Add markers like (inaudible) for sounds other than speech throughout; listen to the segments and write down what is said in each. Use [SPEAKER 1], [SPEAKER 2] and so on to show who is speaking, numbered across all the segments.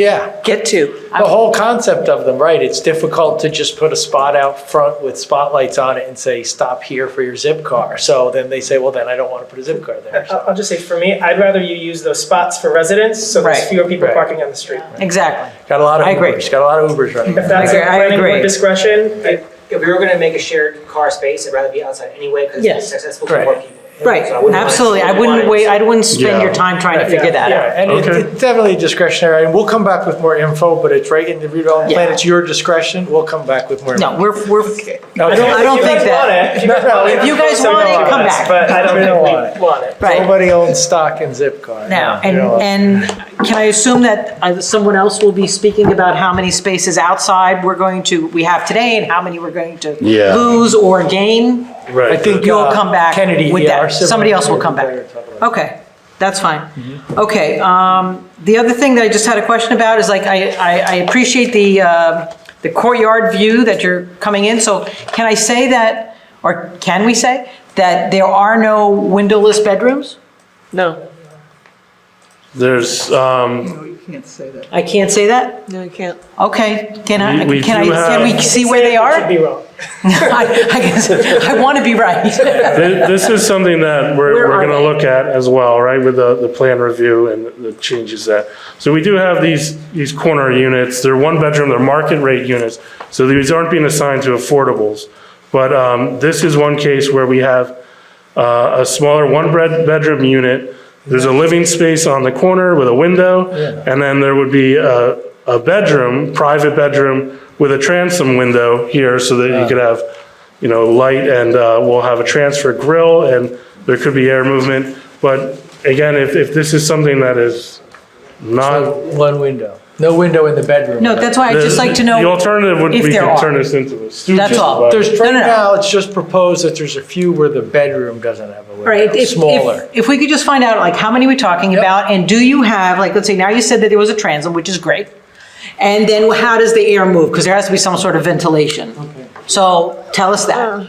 [SPEAKER 1] Yeah,
[SPEAKER 2] get to.
[SPEAKER 1] the whole concept of them, right? It's difficult to just put a spot out front with spotlights on it and say, stop here for your zip car. So then they say, well, then I don't want to put a zip car
[SPEAKER 2] (laughs)
[SPEAKER 1] there.
[SPEAKER 3] I'll I'll just say, for me, I'd rather you use those spots for residents, so there's
[SPEAKER 2] Right.
[SPEAKER 3] fewer people
[SPEAKER 1] Right.
[SPEAKER 3] parking on the street.
[SPEAKER 2] Exactly.
[SPEAKER 1] Got a lot of
[SPEAKER 2] I agree.
[SPEAKER 1] Ubers, got a lot of Ubers running.
[SPEAKER 3] If
[SPEAKER 1] around.
[SPEAKER 3] that's
[SPEAKER 2] I agree,
[SPEAKER 3] at
[SPEAKER 2] I
[SPEAKER 3] planning board
[SPEAKER 2] agree.
[SPEAKER 3] discretion, I-
[SPEAKER 4] If if we were gonna make a shared car space, it'd rather be outside anyway, because
[SPEAKER 2] Yes.
[SPEAKER 4] it's accessible to
[SPEAKER 1] Right.
[SPEAKER 4] more people.
[SPEAKER 2] Right,
[SPEAKER 4] So I wouldn't mind-
[SPEAKER 2] absolutely. I wouldn't
[SPEAKER 4] mind-
[SPEAKER 2] wait, I wouldn't spend your
[SPEAKER 5] Yeah.
[SPEAKER 2] time trying to figure that out.
[SPEAKER 1] Yeah, and it-
[SPEAKER 5] Okay.
[SPEAKER 1] it's definitely discretionary, and we'll come back with more info, but it's right in the redevelopment plan,
[SPEAKER 2] Yeah.
[SPEAKER 1] it's your discretion, we'll come back with more.
[SPEAKER 2] No, we're, we're,
[SPEAKER 1] No,
[SPEAKER 2] I don't-
[SPEAKER 1] don't-
[SPEAKER 2] I don't
[SPEAKER 3] if you
[SPEAKER 2] think
[SPEAKER 3] guys
[SPEAKER 2] that-
[SPEAKER 3] want it, If you guys
[SPEAKER 1] (laughs) No, no,
[SPEAKER 3] want it,
[SPEAKER 1] if
[SPEAKER 2] you guys
[SPEAKER 3] so
[SPEAKER 2] want it,
[SPEAKER 3] don't
[SPEAKER 2] come
[SPEAKER 3] want us,
[SPEAKER 2] back.
[SPEAKER 3] But I don't
[SPEAKER 1] We don't
[SPEAKER 4] (laughs)
[SPEAKER 3] think
[SPEAKER 1] want
[SPEAKER 3] we want it.
[SPEAKER 2] right.
[SPEAKER 1] Nobody owns stock in Zipcar.
[SPEAKER 2] Now,
[SPEAKER 1] You
[SPEAKER 2] and,
[SPEAKER 1] know,
[SPEAKER 2] and can I assume that uh, someone else will be speaking about how many spaces outside we're going to, we have today and how many we're going to
[SPEAKER 5] Yeah.
[SPEAKER 2] lose or gain?
[SPEAKER 5] Right.
[SPEAKER 1] I think.
[SPEAKER 2] You'll
[SPEAKER 1] uh,
[SPEAKER 2] come back
[SPEAKER 1] Kennedy,
[SPEAKER 2] with
[SPEAKER 1] yeah,
[SPEAKER 2] that.
[SPEAKER 1] our civil
[SPEAKER 2] Somebody else will come
[SPEAKER 1] engineer
[SPEAKER 2] back.
[SPEAKER 1] will talk about Mm-hmm.
[SPEAKER 2] Okay, that's fine. Okay, um, the other thing that I just had a question about is like, I, I, I appreciate the, uh, the courtyard view that you're coming in, so can I say that, or can we say, that there are no windowless bedrooms?
[SPEAKER 6] No,
[SPEAKER 5] There's, um,
[SPEAKER 2] I can't say that?
[SPEAKER 6] no, you can't.
[SPEAKER 2] Okay, can I,
[SPEAKER 5] We- we
[SPEAKER 2] can I,
[SPEAKER 5] do
[SPEAKER 2] can we
[SPEAKER 5] have-
[SPEAKER 2] see where they
[SPEAKER 3] Could
[SPEAKER 2] are? (laughs)
[SPEAKER 3] be wrong.
[SPEAKER 2] I, I guess, I want to be right. (laughs)
[SPEAKER 5] thi- this is something that we're,
[SPEAKER 2] Where
[SPEAKER 5] we're
[SPEAKER 2] are
[SPEAKER 5] gonna
[SPEAKER 2] they?
[SPEAKER 5] look at as well, right, with the, the plan review and the changes that. So we do have these, these corner units, they're one bedroom, they're market rate units, so these aren't being assigned to affordables. But, um, this is one case where we have, uh, a smaller one bed, bedroom unit. There's a living space on the corner with a window, and then there would be a, a bedroom, private bedroom with a transom window here so that you could have, you know, light and, uh, we'll have a transfer grill and there could be air movement. But again, if, if this is something that is not.
[SPEAKER 1] it. One window, no window in the bedroom.
[SPEAKER 2] No, that's why I'd just like to know.
[SPEAKER 5] The alternative would
[SPEAKER 2] if
[SPEAKER 5] be
[SPEAKER 2] there
[SPEAKER 5] to
[SPEAKER 2] are.
[SPEAKER 5] turn this into a studio.
[SPEAKER 2] That's all.
[SPEAKER 5] but-
[SPEAKER 1] There's, right
[SPEAKER 2] No, no, no.
[SPEAKER 1] now, it's just proposed that there's a few where the bedroom doesn't have a
[SPEAKER 2] Right,
[SPEAKER 1] window,
[SPEAKER 2] if,
[SPEAKER 1] smaller.
[SPEAKER 2] if, if we could just find out, like, how many we're talking about, and do you have, like, let's say, now you said that there was a transom, which is great, and then how does the air move? Because there has to be some sort of ventilation. So tell us that,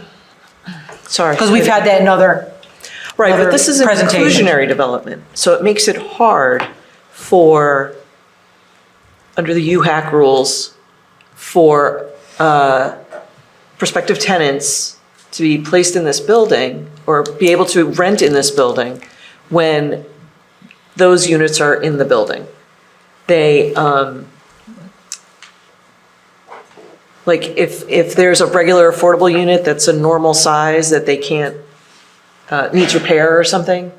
[SPEAKER 6] Sorry.
[SPEAKER 2] because we've had that in other,
[SPEAKER 6] Right, but
[SPEAKER 2] other
[SPEAKER 6] this is an
[SPEAKER 2] presentation.
[SPEAKER 6] inclusionary development, so it makes it hard for, under the UHAC rules, for uh, prospective tenants to be placed in this building or be able to rent in this building when those units are in the building. They, um, like, if, if there's a regular affordable unit that's a normal size that they can't uh, needs repair or something,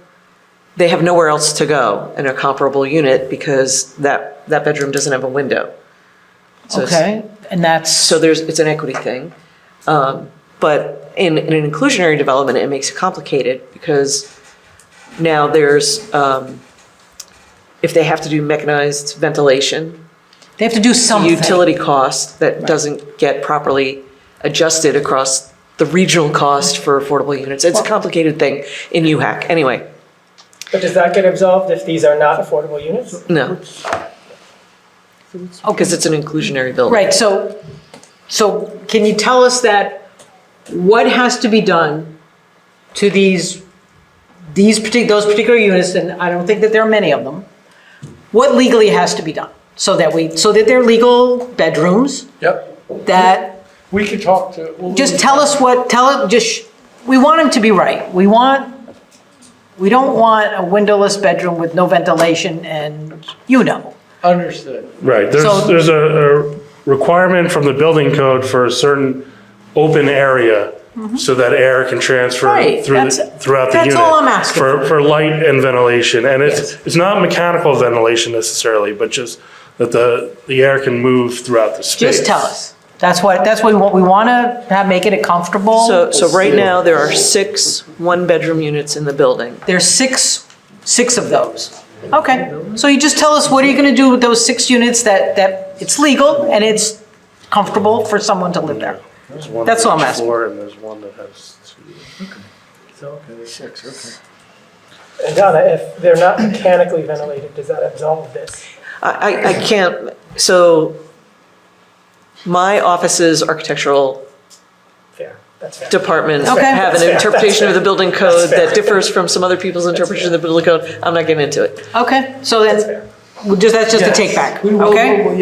[SPEAKER 6] they have nowhere else to go in a comparable unit because that, that bedroom doesn't have a window. So it's-
[SPEAKER 2] okay, and that's,
[SPEAKER 6] So there's, it's an equity thing. Um, But in, in an inclusionary development, it makes it complicated because now there's, um, if they have to do mechanized ventilation,
[SPEAKER 2] they have to do something.
[SPEAKER 6] utility cost that doesn't get properly adjusted across the regional cost for affordable units. It's a complicated thing in UHAC. Anyway,
[SPEAKER 3] But does that get absolved if these are not affordable units?
[SPEAKER 6] no. Because Oh, it's an inclusionary building.
[SPEAKER 2] Right, so, so can you tell us that, what has to be done to these, these partic, those particular units, and I don't think that there are many of them, what legally has to be done? So that we, so that they're legal bedrooms,
[SPEAKER 1] Yep.
[SPEAKER 2] that,
[SPEAKER 1] We could talk to. we'll-
[SPEAKER 2] just tell us what, tell it, just, sh- we want them to be right. We want, we don't want a windowless bedroom with no ventilation and, you know.
[SPEAKER 1] Understood.
[SPEAKER 5] Right,
[SPEAKER 2] So-
[SPEAKER 5] there's, there's a, a requirement from the building code for a certain open area so that air can transfer
[SPEAKER 2] Mm-hmm. Right,
[SPEAKER 5] through, the-
[SPEAKER 2] that's-
[SPEAKER 5] throughout the
[SPEAKER 2] that's
[SPEAKER 5] unit.
[SPEAKER 2] all I'm asking
[SPEAKER 5] For, for light and ventilation, and
[SPEAKER 2] Yes.
[SPEAKER 5] it's, it's not mechanical ventilation necessarily, but just that the, the air can move throughout the space.
[SPEAKER 2] Just tell us. That's what, that's what we want, we want to have, make it a comfortable.
[SPEAKER 6] So, so right now, there are six one-bedroom units in the building.
[SPEAKER 2] There's six, six of those. Okay, so you just tell us, what are you going to do with those six units that, that it's legal and it's comfortable for someone to live there?
[SPEAKER 5] There's one
[SPEAKER 2] That's
[SPEAKER 5] on
[SPEAKER 2] all I'm
[SPEAKER 5] each
[SPEAKER 2] asking.
[SPEAKER 5] Floor, and there's one that has two.
[SPEAKER 3] And Donna, if they're not mechanically ventilated, does that absolve this?
[SPEAKER 6] I, I- I can't, so my office's architectural
[SPEAKER 3] Fair, that's fair.
[SPEAKER 6] department
[SPEAKER 2] Okay.
[SPEAKER 6] have an interpretation of the building code
[SPEAKER 3] fair.
[SPEAKER 6] that differs from some other people's interpretation of the building code. I'm not getting into it.
[SPEAKER 2] Okay, so
[SPEAKER 3] That's
[SPEAKER 2] then,
[SPEAKER 3] fair.
[SPEAKER 7] Well, just, that's just a
[SPEAKER 2] Yes.
[SPEAKER 7] take back,
[SPEAKER 2] We will-
[SPEAKER 7] okay?
[SPEAKER 2] we will-